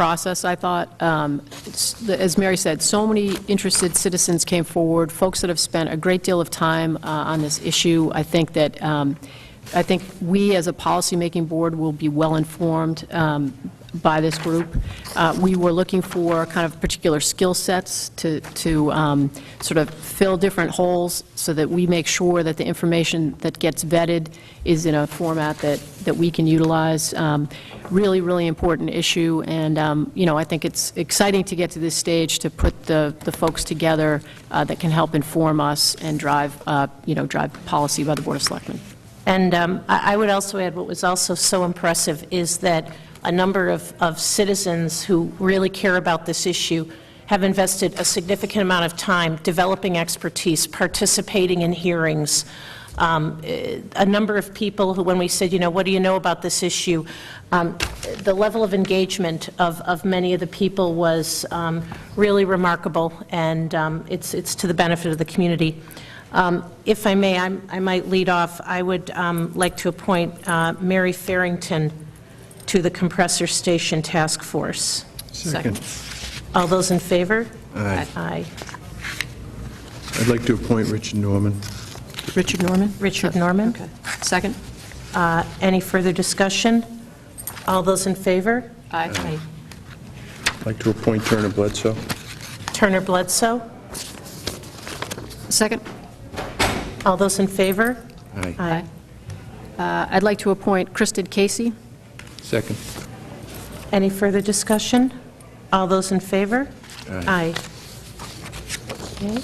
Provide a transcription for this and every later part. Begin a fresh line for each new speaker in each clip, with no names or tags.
process, I thought. Um, s- the- As Mary said, so many interested citizens came forward, folks that have spent a great deal of time uh, on this issue. I think that, um, I think we, as a policymaking board, will be well-informed um, by this group. Uh, We were looking for kind of particular skill sets to, to um, sort of fill different holes so that we make sure that the information that gets vetted is in a format that, that we can utilize. Um, Really, really important issue, and, um, you know, I think it's exciting to get to this stage to put the, the folks together uh, that can help inform us and drive, uh, you know, drive policy by the Board of Selectmen.
And um, I I would also add, what was also so impressive is that a number of of citizens who really care about this issue have invested a significant amount of time developing expertise, participating in hearings. Um, eh, A number of people who, when we said, you know, what do you know about this issue? Um, The level of engagement of of many of the people was um, really remarkable, and um, it's it's to the benefit of the community. Um, If I may, I'm- I might lead off. I would um, like to appoint uh, Mary Farrington to the Compressor Station Task Force.
Second.
All those in favor?
Aye.
Aye.
I'd like to appoint Richard Norman.
Richard Norman?
Richard Norman?
Okay. Second?
Uh, Any further discussion? All those in favor?
Aye.
I'd like to appoint Turner Bledsoe.
Turner Bledsoe?
Second?
All those in favor?
Aye.
Aye.
Uh, I'd like to appoint Kristen Casey.
Second.
Any further discussion? All those in favor?
Aye.
Aye. Okay.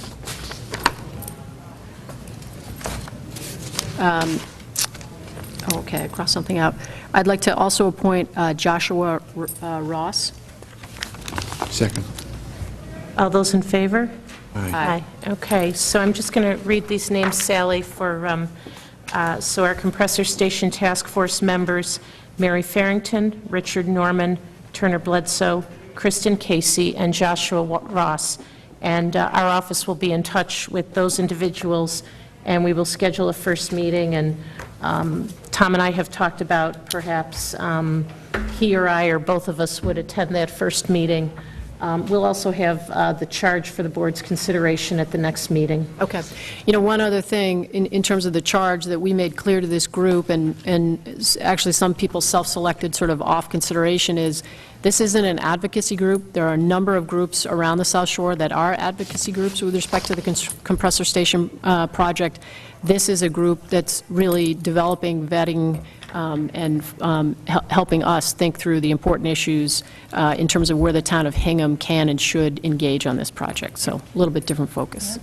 Oh, Okay, I crossed something out. I'd like to also appoint uh, Joshua R- uh, Ross.
Second.
All those in favor?
Aye.
Aye.
Okay, so I'm just going to read these names, Sally, for, um, uh, so our compressor station task force members, Mary Farrington, Richard Norman, Turner Bledsoe, Kristen Casey, and Joshua Wa- Ross. And uh, our office will be in touch with those individuals, and we will schedule a first meeting, and um, Tom and I have talked about perhaps um, he or I, or both of us, would attend that first meeting. Um, We'll also have uh, the charge for the board's consideration at the next meeting.
Okay. You know, one other thing, in, in terms of the charge that we made clear to this group, and, and s- actually some people self-selected sort of off consideration, is this isn't an advocacy group. There are a number of groups around the South Shore that are advocacy groups with respect to the cons- compressor station uh, project. This is a group that's really developing, vetting, um, and um, hel- helping us think through the important issues uh, in terms of where the town of Hingham can and should engage on this project. So a little bit different focus.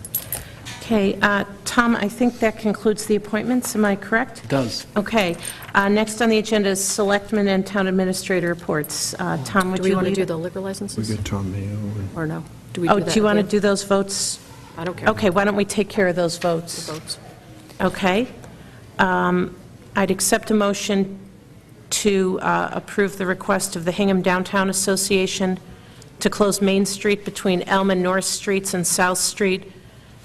Okay, uh, Tom, I think that concludes the appointments, am I correct?
It does.
Okay, uh, next on the agenda is Selectmen and Town Administrator reports. Uh, Tom, would
Do
you
we want to
lead?
do the liquor
We
licenses,
got Tom Mayo and
or no? we
Oh, do
that
you
at
want to
the
do those votes?
end? I don't care.
Okay, why don't we take care of those votes?
Votes.
Okay. Um, I'd accept a motion to uh, approve the request of the Hingham Downtown Association to close Main Street between Elm and North Streets and South Street,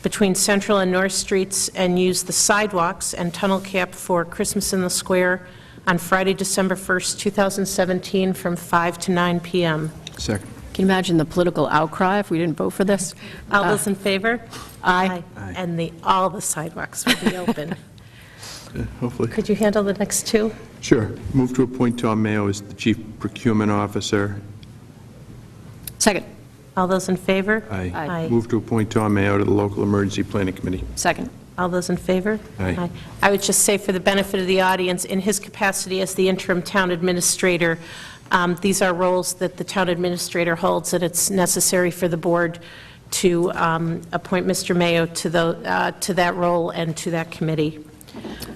between Central and North Streets, and use the sidewalks and tunnel cap for Christmas in the Square on Friday, December 1st, 2017, from 5 to 9 p.m.
second.
Can you imagine the political outcry if we didn't vote for this? Uh,
All those in favor?
Aye.
Aye.
Uh, And the, all the sidewalks will be open.
Uh, Hopefully.
Could you handle the next two?
Sure. Move to appoint Tom Mayo as the Chief Procurement Officer.
Second,
All those in favor?
Aye.
Aye.
Move to appoint Tom Mayo to the Local Emergency Planning Committee.
second.
All those in favor?
Aye.
I would just say, for the benefit of the audience, in his capacity as the interim town administrator, um, these are roles that the town administrator holds, and it's necessary for the board to um, appoint Mr. Mayo to the, uh, to that role and to that committee.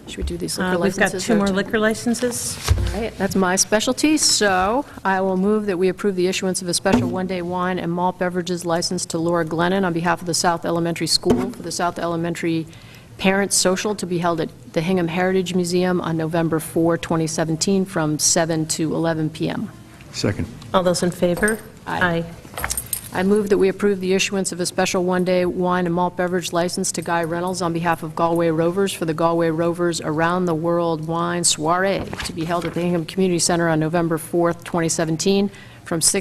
Should we do these
Uh,
liquor
We've got
licenses?
two
or
more
t-
liquor licenses.
All right, That's my specialty, so I will move that we approve the issuance of a special one-day wine and malt beverages license to Laura Glennon on behalf of the South Elementary School for the South Elementary Parents Social to be held at the Hingham Heritage Museum on November 4, 2017, from 7 to 11 p.m.
Second.
All those in favor?
Aye. I move that we approve the issuance of a special one-day wine and malt beverage license to Guy Reynolds on behalf of Galway Rovers for the Galway Rovers Around the World Wine Soiree to be held at the Hingham Community Center on November 4th, 2017, from 6